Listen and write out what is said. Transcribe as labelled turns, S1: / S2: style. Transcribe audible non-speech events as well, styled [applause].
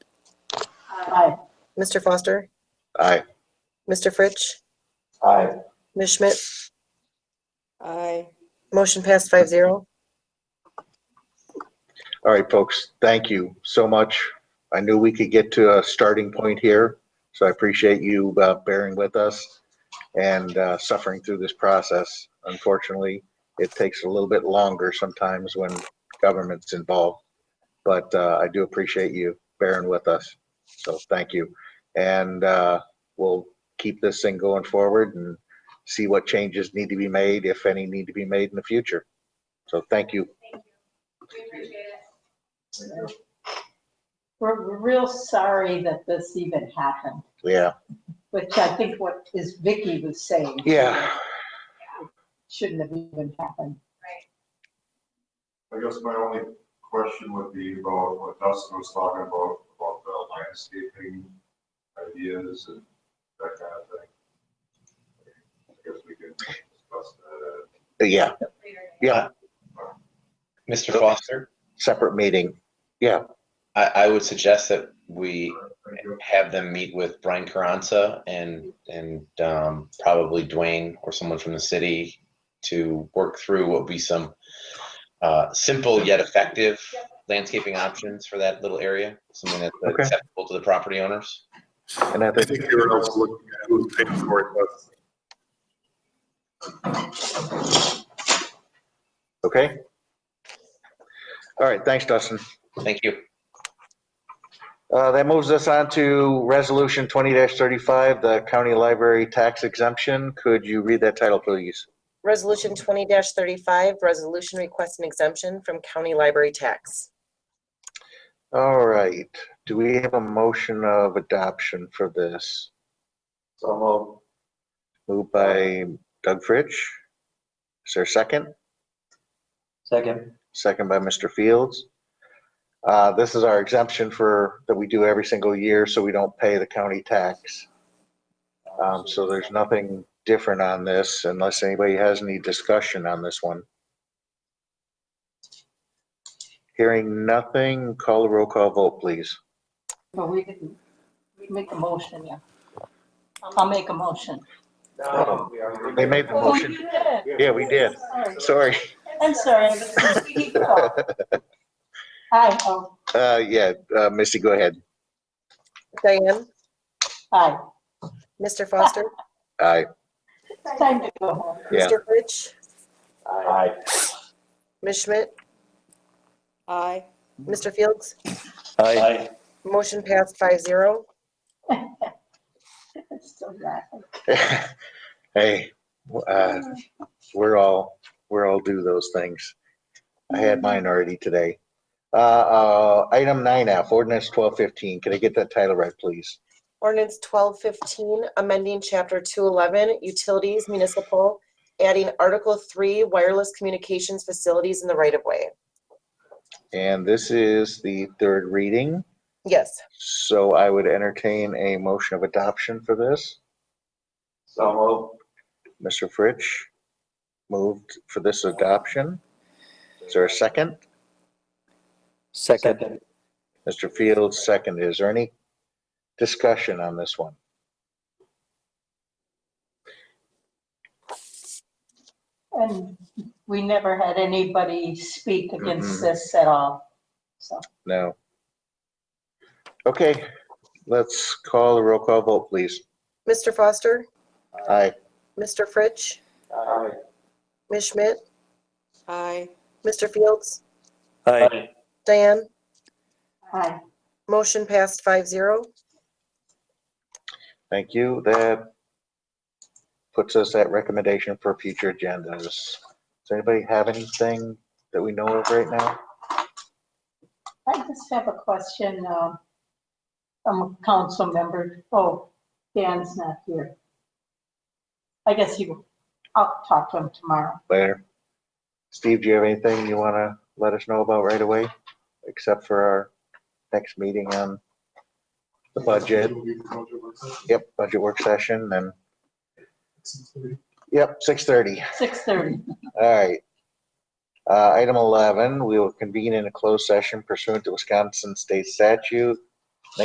S1: Aye.
S2: Mr. Foster,
S3: Aye.
S2: Mr. Fritsch,
S3: Aye.
S2: Ms. Schmidt.
S4: Aye.
S2: Motion passed five zero.
S3: All right, folks, thank you so much. I knew we could get to a starting point here, so I appreciate you uh, bearing with us and uh, suffering through this process. Unfortunately, it takes a little bit longer sometimes when government's involved, but uh, I do appreciate you bearing with us. So thank you. And uh, we'll keep this thing going forward and see what changes need to be made, if any need to be made in the future. So thank you.
S1: We're we're real sorry that this even happened,
S3: Yeah,
S1: which I think what is Vicky was saying.
S3: yeah.
S1: Shouldn't have even happened.
S5: I guess my only question would be about what Dustin was talking about, about the landscaping ideas and that kind of thing. I guess we can discuss that.
S3: Yeah, yeah,
S6: Mr. Foster,
S3: separate meeting.
S6: I, I would suggest that we
S5: Thank you.
S6: have them meet with Brian Carranza and, and um, probably Dwayne or someone from the city to work through what would be some uh, simple yet effective landscaping options for that little area, something that's
S3: Okay.
S6: acceptable to the property owners.
S3: And I
S7: I
S3: think,
S7: think they were also looking at who was paying for it, but
S3: okay. All right, thanks, Dustin.
S6: Thank you.
S3: Uh, That moves us on to Resolution 20-35, the county library tax exemption. Could you read that title, please?
S2: Resolution twenty thirty-five, resolution requesting exemption from county library tax.
S3: All right, do we have a motion of adoption for this?
S5: So,
S3: Moved by Doug Fritsch. Is there a second?
S8: Second.
S3: second by Mr. Fields. Uh, This is our exemption for, that we do every single year, so we don't pay the county tax. Um, So there's nothing different on this unless anybody has any discussion on this one. Hearing nothing, call the roll call vote, please.
S1: But we didn't we make a motion, yeah. I'll make a motion.
S3: They made the
S1: Oh,
S3: motion.
S1: you did.
S3: Yeah, we did.
S1: Sorry.
S3: Sorry.
S1: I'm sorry.
S3: [laughs]
S1: Hi, oh,
S3: Uh, Yeah, uh, Misty, go ahead.
S2: Diane,
S1: hi.
S2: Mr. Foster,
S3: Aye.
S1: Time to go home.
S3: Yeah.
S2: Mr. Fritsch,
S3: Aye.
S2: Ms. Schmidt,
S4: Aye.
S2: Mr. Fields.
S8: Aye.
S2: Motion passed five zero.
S1: It's so bad.
S3: [laughs] Hey, uh, we're all, we're all do those things. I had mine already today. Uh, uh, item nine F, ordinance twelve fifteen. Can I get that title right, please?
S2: Ordinance twelve fifteen, amending chapter two eleven, utilities municipal, adding article three, wireless communications facilities in the right of way.
S3: And this is the third reading,
S2: Yes,
S3: so I would entertain a motion of adoption for this.
S5: so,
S3: Mr. Fritsch moved for this adoption. Is there a second?
S8: Second.
S3: Mr. Fields, second. Is there any discussion on this one?
S1: And we never had anybody speak against this at all, so.
S3: No. Okay, let's call the roll call vote, please.
S2: Mr. Foster,
S3: Aye.
S2: Mr. Fritsch,
S5: Aye.
S2: Ms. Schmidt,
S4: Aye.
S2: Mr. Fields,
S8: Aye.
S2: Diane,
S1: Hi.
S2: motion passed five zero.
S3: Thank you. That puts us at recommendation for future agendas. Does anybody have anything that we know of right now?
S1: I just have a question. um, I'm a council member. Oh, Dan's not here. I guess you, I'll talk to him tomorrow.
S3: Later. Steve, do you have anything you want to let us know about right away? Except for our next meeting on the budget? Yep, budget work session and, yep, 6:30.
S1: 6:30.
S3: All right. Uh, Item 11, we will convene in a closed session pursuant to Wisconsin State Statute